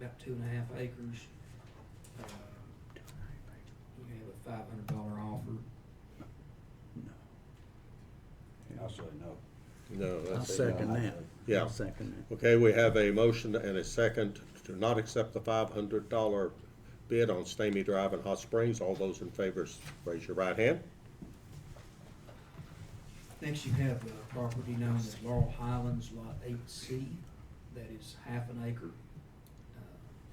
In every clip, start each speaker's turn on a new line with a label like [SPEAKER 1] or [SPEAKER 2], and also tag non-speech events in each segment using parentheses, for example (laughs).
[SPEAKER 1] about two and a half acres. Uh, We have a five hundred dollar offer.
[SPEAKER 2] I say no.
[SPEAKER 3] No, that's.
[SPEAKER 4] I'll second that.
[SPEAKER 3] Yeah.
[SPEAKER 4] I'll second
[SPEAKER 3] Okay, we have a motion and a second to not accept the five hundred dollar bid on Stamey Drive in Hot Springs. All those in favor, raise your right hand.
[SPEAKER 1] Next, you have the property known as Laurel Highlands Lot Eight C. That is half an acre. Uh,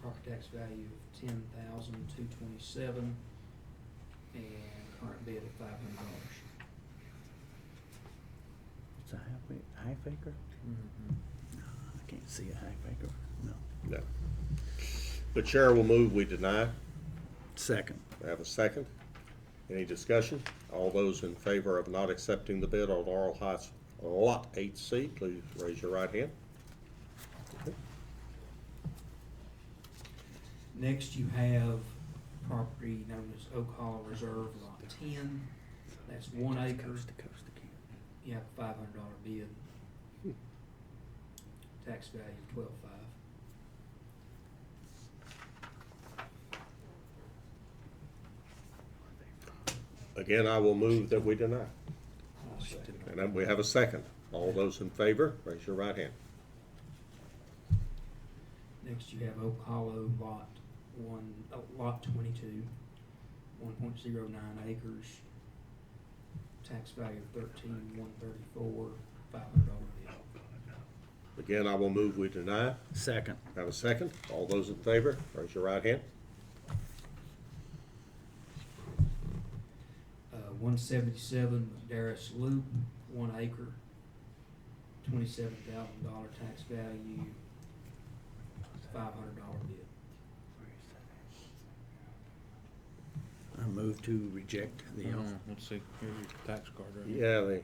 [SPEAKER 1] Property tax value of ten thousand two twenty-seven and current bid of five hundred dollars.
[SPEAKER 4] that. It's a half, a- half acre? No, I can't see a half acre, no.
[SPEAKER 3] No. The chair will move, we deny.
[SPEAKER 4] Second.
[SPEAKER 3] I have a second. Any discussion? All those in favor of not accepting the bid on Laurel Heights Lot Eight C, please raise your right hand.
[SPEAKER 1] Next, you have property known as Oak Hall Reserve Lot Ten. That's one acre.
[SPEAKER 4] Coast to coast again.
[SPEAKER 1] You have a five hundred dollar bid. Tax value of twelve-five.
[SPEAKER 3] Again, I will move that we deny.
[SPEAKER 1] I'll second.
[SPEAKER 3] And then we have a second. All those in favor, raise your right hand.
[SPEAKER 1] Next, you have Oak Hollow Lot One, uh, Lot Twenty-two, one point zero nine acres. Tax value of thirteen, one thirty-four, five hundred dollar bid.
[SPEAKER 3] Again, I will move, we deny.
[SPEAKER 4] Second.
[SPEAKER 3] Have a second. All those in favor, raise your right hand.
[SPEAKER 1] Uh, one seventy-seven Darris Loop, one acre, twenty-seven thousand dollar tax value, five hundred dollar bid.
[SPEAKER 4] I move to reject the offer.
[SPEAKER 5] Mm-hmm. Let's see, here's your tax card right here.
[SPEAKER 3] Yeah, the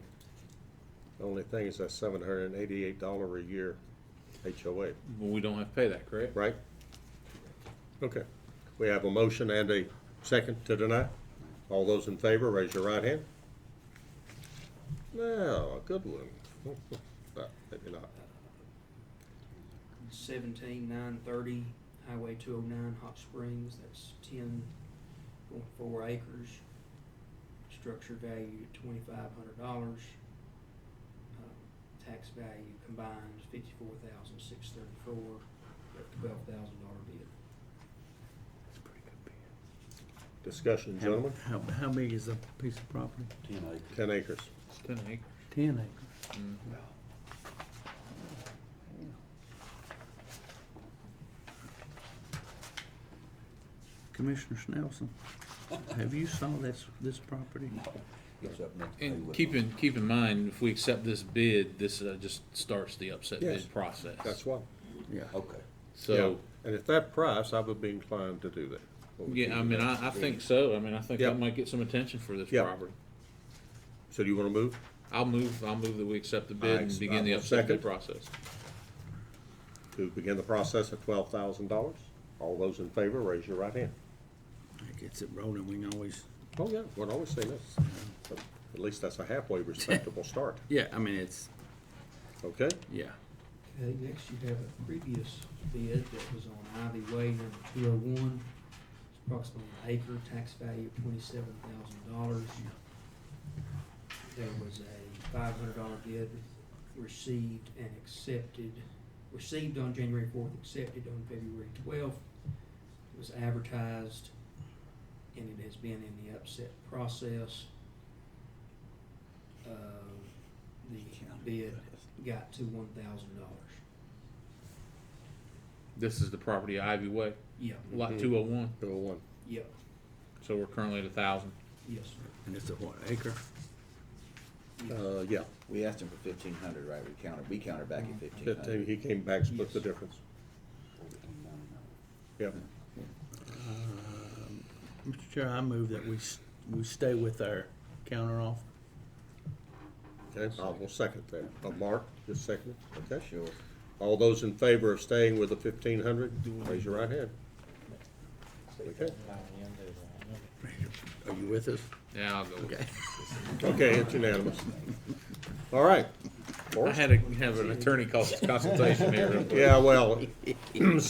[SPEAKER 3] the only thing is that seven hundred and eighty-eight dollar a year HOA,
[SPEAKER 5] Well, we don't have to pay that, correct?
[SPEAKER 3] right? Okay. We have a motion and a second to deny. All those in favor, raise your right hand. Now, a good one. (laughs) Well, Maybe not.
[SPEAKER 1] seventeen nine thirty, Highway two oh nine, Hot Springs, that's ten point four acres. Structure value twenty-five hundred dollars. Um, Tax value combined fifty-four thousand six thirty-four, twelve thousand dollar bid.
[SPEAKER 4] That's a pretty good bid.
[SPEAKER 3] Discussion,
[SPEAKER 4] How-
[SPEAKER 3] gentlemen.
[SPEAKER 4] How, how big is a piece of property?
[SPEAKER 2] Ten acres.
[SPEAKER 3] Ten acres.
[SPEAKER 5] It's ten acres.
[SPEAKER 4] Ten acres. Commissioner Snelson, have you saw this, this property?
[SPEAKER 2] It's up next. to
[SPEAKER 5] And
[SPEAKER 2] Haywood.
[SPEAKER 5] keep in, keep in mind, if we accept this bid, this uh, just starts the upset
[SPEAKER 3] Yes.
[SPEAKER 5] bid process.
[SPEAKER 3] That's why.
[SPEAKER 4] Yeah.
[SPEAKER 2] Okay.
[SPEAKER 5] So,
[SPEAKER 3] And at that price, I would be inclined to do that.
[SPEAKER 5] yeah, I mean, I, I think so. I mean, I think
[SPEAKER 3] Yeah.
[SPEAKER 5] I might get some attention for this
[SPEAKER 3] Yeah.
[SPEAKER 5] property.
[SPEAKER 3] So do you want to move?
[SPEAKER 5] I'll move, I'll move that we accept the
[SPEAKER 3] I
[SPEAKER 5] bid and begin the
[SPEAKER 3] accept-
[SPEAKER 5] upset
[SPEAKER 3] second.
[SPEAKER 5] bid process.
[SPEAKER 3] to begin the process at twelve thousand dollars. All those in favor, raise your right hand.
[SPEAKER 4] That gets it rolling, we can always,
[SPEAKER 3] Oh, yeah, we'd always say this. But At least that's a halfway respectable start,
[SPEAKER 4] yeah, I mean, it's,
[SPEAKER 3] okay?
[SPEAKER 4] yeah.
[SPEAKER 1] Okay, next you have a previous bid that was on Ivy Way number two oh one. It's approximately an acre, tax value of twenty-seven thousand dollars. There was a five hundred dollar bid received and accepted, received on January fourth, accepted on February twelfth. It was advertised and it has been in the upset process. Uh, the bid got to one thousand dollars.
[SPEAKER 5] This is the property Ivy Way,
[SPEAKER 1] Yeah,
[SPEAKER 5] lot
[SPEAKER 3] Mhm.
[SPEAKER 5] two oh one,
[SPEAKER 3] Bill one.
[SPEAKER 1] yeah,
[SPEAKER 5] so we're currently at a thousand.
[SPEAKER 1] yes, sir.
[SPEAKER 4] And it's a what, acre?
[SPEAKER 3] Uh, yeah,
[SPEAKER 2] We asked him for fifteen hundred, right? We countered, we countered back at fifteen
[SPEAKER 3] fifteen,
[SPEAKER 2] hundred.
[SPEAKER 3] he came back, split the
[SPEAKER 1] Yes.
[SPEAKER 3] difference. Yep,
[SPEAKER 4] Um, Mr. Chair, I move that we, s- we stay with our counter offer.
[SPEAKER 3] okay, I will second that. Uh, Mark, just second it, okay?
[SPEAKER 2] Sure.
[SPEAKER 3] All those in favor of staying with the fifteen hundred, raise your right hand. Okay,
[SPEAKER 4] Are you with us?
[SPEAKER 5] Yeah, I'll go with it.
[SPEAKER 3] okay, it's unanimous. All right.
[SPEAKER 5] I
[SPEAKER 3] Forrest?
[SPEAKER 5] had to have an attorney cons- consultation here. real quick.
[SPEAKER 3] Yeah, well,